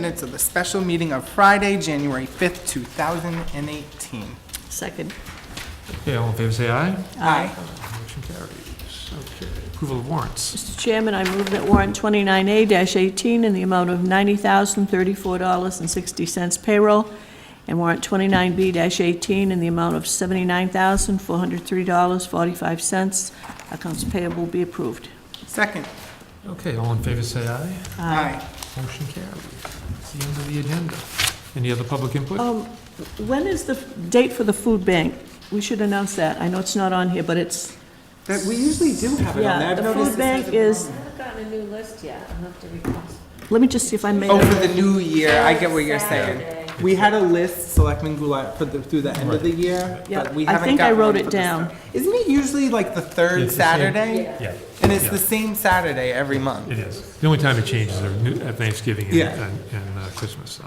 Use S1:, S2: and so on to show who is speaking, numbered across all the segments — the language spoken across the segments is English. S1: minutes of the special meeting of Friday, January 5th, 2018.
S2: Second.
S3: Okay, all in favor, say aye.
S1: Aye.
S3: Motion carries. Okay, approval of warrants.
S2: Mr. Chairman, I move that warrant 29A-18 in the amount of $90,034.60 payroll, and warrant 29B-18 in the amount of $79,403.45 accounts payable be approved.
S1: Second.
S3: Okay, all in favor, say aye.
S1: Aye.
S3: Motion carries. That's the end of the agenda. Any other public input?
S2: Um, When is the date for the food bank? We should announce that. I know it's not on here, but it's,
S1: That, we usually do have it on there.
S2: yeah,
S1: I've
S2: the
S1: noticed this
S2: food bank
S1: hasn't been
S2: is,
S1: on there.
S4: haven't gotten a new list yet, I'll have to request.
S2: let me just see if I made
S1: Oh,
S2: it.
S1: for the new year, I get what you're saying.
S4: Saturday.
S1: We had a list, Selectmen Goulart, for the, through the end of the year,
S2: Yeah,
S1: but we
S2: I
S1: haven't
S2: think I
S1: gotten
S2: wrote
S1: one
S2: it
S1: for this
S2: down.
S1: time. Isn't it usually like the third
S3: It's the same-
S1: Saturday?
S3: Yeah,
S1: And it's
S3: Yeah.
S1: the same Saturday every month.
S3: it is. The only time it changes are new- at Thanksgiving and-
S1: Yeah.
S3: and and, uh, Christmas, so.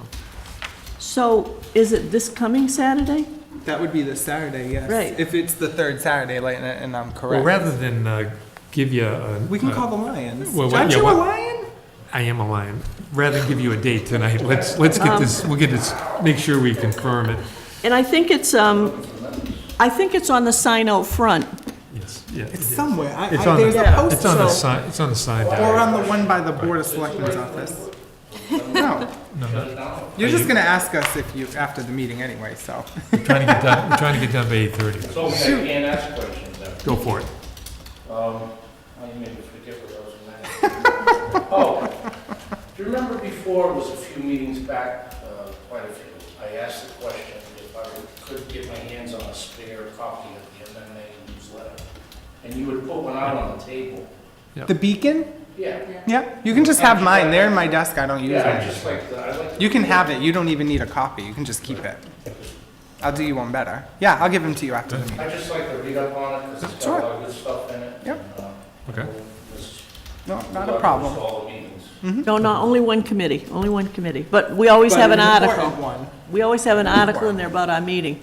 S2: So is it this coming Saturday?
S1: That would be the Saturday, yes.
S2: Right.
S1: If it's the third Saturday, like, and and I'm
S3: Well,
S1: correct.
S3: rather than uh, give you a...
S1: We can
S3: a-
S1: call the Lions.
S3: Well, what-
S1: Aren't
S3: yeah,
S1: you a
S3: what-
S1: lion?
S3: I am a lion. Rather than give you a date tonight, let's, let's get
S1: Um,
S3: this, we'll get this, make sure we confirm it.
S2: And I think it's, um, I think it's on the sign out front.
S3: Yes, yeah. it
S1: It's
S3: is.
S1: somewhere. I, I,
S3: It's on
S1: there's
S3: the-
S1: a post.
S3: It's on the sign, it's on the sign
S1: Or um,
S3: dial.
S1: on the one by the Board of Selectmen's office. No.
S3: No, no,
S1: You're just gonna ask us if you, after the meeting anyway, so.
S3: We're trying to get done, we're trying to get done by 8:30.
S5: So we can ask questions then.
S3: Go for it.
S5: Um, oh, you made me forget what I was gonna ask. Oh, do you remember before, it was a few meetings back, uh, quite a few, I asked the question if I could get my hands on a spare copy of the MMA newsletter? And you would put one out on the table.
S1: The beacon?
S5: Yeah.
S1: Yep, you can just have mine. They're in my desk. I don't use
S5: Yeah, I
S1: them.
S5: just like, to- I like. to-
S1: You can have it. You don't even need a copy. You can just keep it. I'll do you one better. Yeah, I'll give them to you after the meeting.
S5: I just like to read up on it, because it's
S1: Sure.
S5: got a lot of good stuff in it.
S1: Yep.
S5: and, um,
S3: Okay.
S5: this-
S1: No, not
S5: this
S1: a
S5: is
S1: problem.
S5: All the meetings.
S2: No, no, only one committee, only one committee. But we always
S1: Mm-hmm. But
S2: have an
S1: important
S2: article.
S1: one.
S2: We always have an article in there about our meeting.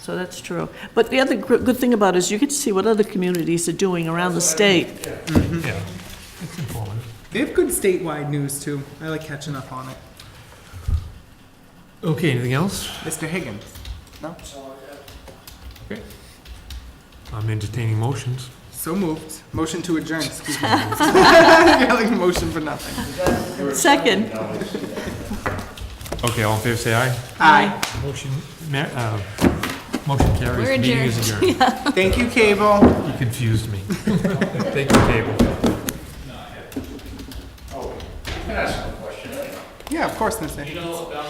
S2: So that's true. But the other gr- good thing about it is you get to see what other communities are doing around the state.
S3: Yeah, it's informative.
S1: They have good statewide news too. I like catching up on it.
S3: Okay, anything else?
S1: Mr. Higgins? No?
S3: I'm entertaining motions.
S1: So moved. Motion to adjourn, excuse me. You're like motion for nothing.
S2: Second.
S3: Okay, all in favor, say aye.
S2: Aye.
S3: Motion, ma- uh, motion carries.
S4: We're
S3: Meeting is adjourned.
S1: Thank you, Cable.
S3: You confused me. Thank you, Cable.
S5: Oh, you can ask them a question anyway.
S1: Yeah, of course, Mr. Higgins.
S5: You know about